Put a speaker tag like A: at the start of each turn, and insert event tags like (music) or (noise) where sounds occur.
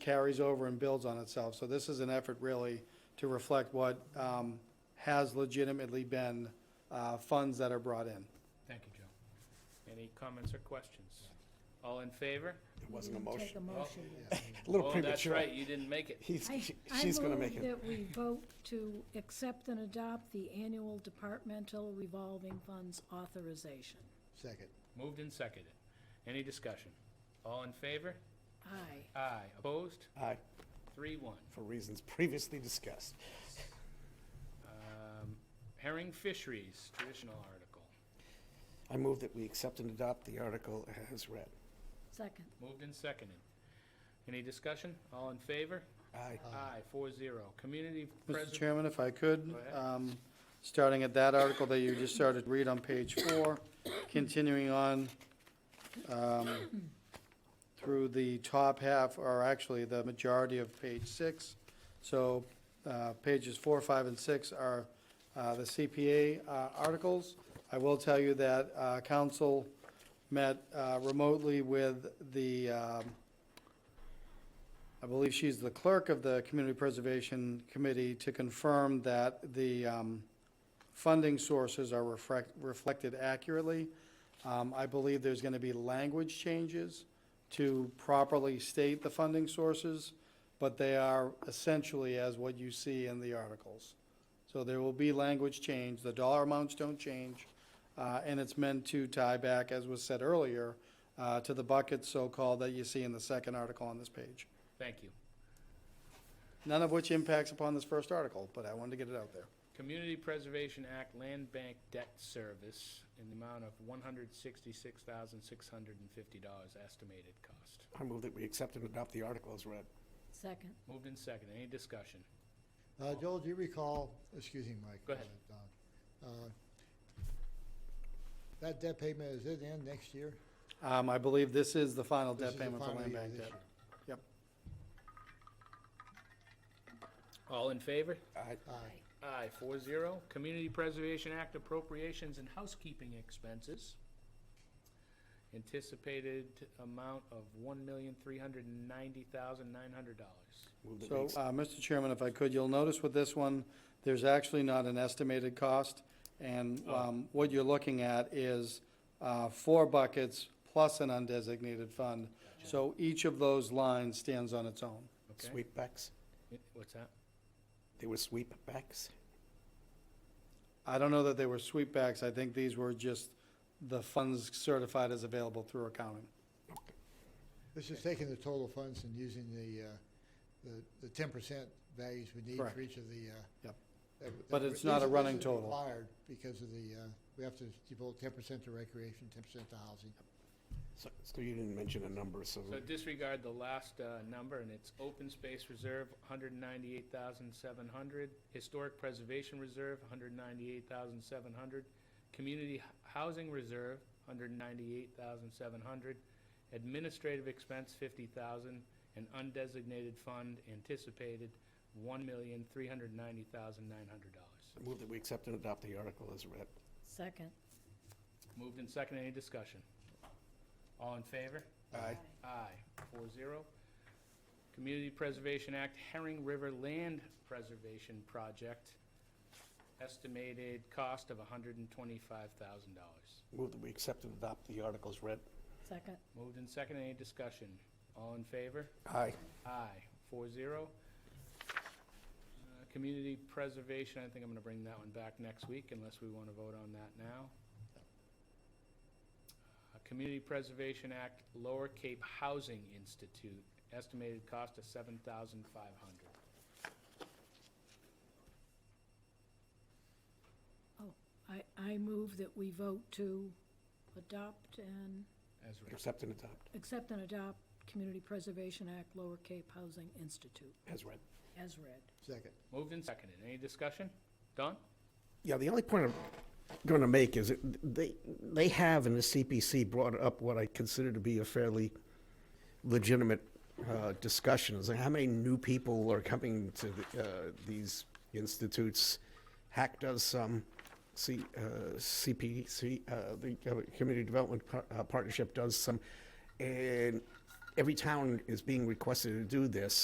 A: carries over and builds on itself. So this is an effort really to reflect what um, has legitimately been uh, funds that are brought in.
B: Thank you, Joe. Any comments or questions? All in favor?
C: It wasn't a
D: Didn't Take
C: motion.
D: a motion yet.
C: A little
B: Oh, that's
C: premature.
B: right, you didn't make it.
C: He's,
D: I-
C: she- (laughs) she's gonna make
D: I
C: it.
D: move that we vote to accept and adopt the annual departmental revolving funds authorization.
E: Second.
B: Moved and seconded. Any discussion? All in favor?
D: Aye.
B: Aye. Opposed?
C: Aye,
B: Three, one.
C: for reasons previously discussed.
B: Um, Herring Fisheries, traditional article.
C: I move that we accept and adopt the article as read.
D: Second.
B: Moved and seconded. Any discussion? All in favor?
C: Aye.
B: Aye, four zero. Community
A: Mr.
B: preservation.
A: Chairman, if I could,
B: Go ahead.
A: um, starting at that article that you just started to read on page four, continuing on um, through the top half, or actually the majority of page six. So uh, pages four, five, and six are uh, the CPA uh, articles. I will tell you that uh, council met uh, remotely with the um, I believe she's the clerk of the Community Preservation Committee to confirm that the um, funding sources are reflect- reflected accurately. Um, I believe there's going to be language changes to properly state the funding sources, but they are essentially as what you see in the articles. So there will be language change, the dollar amounts don't change, uh, and it's meant to tie back, as was said earlier, uh, to the buckets so-called that you see in the second article on this page.
B: Thank you.
A: None of which impacts upon this first article, but I wanted to get it out there.
B: Community Preservation Act Land Bank Debt Service in the amount of one hundred sixty-six thousand, six hundred and fifty dollars estimated cost.
C: I move that we accept and adopt the article as read.
D: Second.
B: Moved and seconded. Any discussion?
E: Uh, Joel, do you recall, excuse me, Mike.
B: Go ahead.
E: uh, Don, uh, That debt payment, is it in next year?
A: Um, I believe this is the final
E: This is
A: debt
E: the
A: payment for
E: final
A: land
E: year
A: bank
E: this
A: debt.
E: year.
B: All in favor?
C: Aye.
E: Aye.
B: Aye, four zero. Community Preservation Act appropriations and housekeeping expenses. Anticipated amount of one million, three hundred and ninety thousand, nine hundred dollars.
C: Move that we
A: So,
C: accept-
A: uh, Mr. Chairman, if I could, you'll notice with this one, there's actually not an estimated cost. And, um, what you're looking at is, uh, four buckets plus an undesignated fund. So each of those lines stands on its own.
B: Okay,
C: Sweepbacks?
B: what's that?
C: They were sweepbacks?
A: I don't know that they were sweepbacks. I think these were just the funds certified as available through accounting.
E: This is taking the total funds and using the, uh, the- the ten percent values we need
A: Correct.
E: for each of the. uh,
A: Yep.
E: that- that-
A: But it's
E: these
A: not a
E: are- these
A: running
E: are
A: total.
E: Required because of the, uh, we have to devote ten percent to recreation, ten percent to housing.
C: So so you didn't mention a number, so
B: So disregard the last uh, number, and it's open space reserve, one hundred ninety-eight thousand seven hundred, historic preservation reserve, one hundred ninety-eight thousand seven hundred, community h- housing reserve, one hundred ninety-eight thousand seven hundred, administrative expense, fifty thousand, and undesignated fund anticipated, one million, three hundred ninety thousand, nine hundred dollars.
C: I move that we accept and adopt the article as read.
D: Second.
B: Moved and second, any discussion? All in favor?
C: Aye.
B: Aye, four zero. Community Preservation Act Herring River Land Preservation Project, estimated cost of hundred and twenty-five thousand dollars.
C: Move that we accept and adopt the article as read.
D: Second.
B: Moved and second, any discussion? All in favor?
C: Aye.
B: Aye, four zero. Uh, Community Preservation, I think I'm gonna bring that one back next week unless we wanna vote on that now. Uh, Community Preservation Act Lower Cape Housing Institute, estimated cost of seven thousand five hundred.
D: I, I move that we vote to adopt and,
B: As read.
C: Accept and adopt
D: accept and adopt Community Preservation Act Lower Cape Housing Institute,
C: as read.
D: as read.
E: Second.
B: Moved and seconded. Any discussion? Don?
C: Yeah, the only point I'm going to make is it- they, they have in the CPC brought up what I consider to be a fairly legitimate uh, discussion, is like how many new people are coming to the, uh, these institutes? Hack does some, C, uh, CPC, uh, the uh, Community Development Par- uh, Partnership does some, and every town is being requested to do this,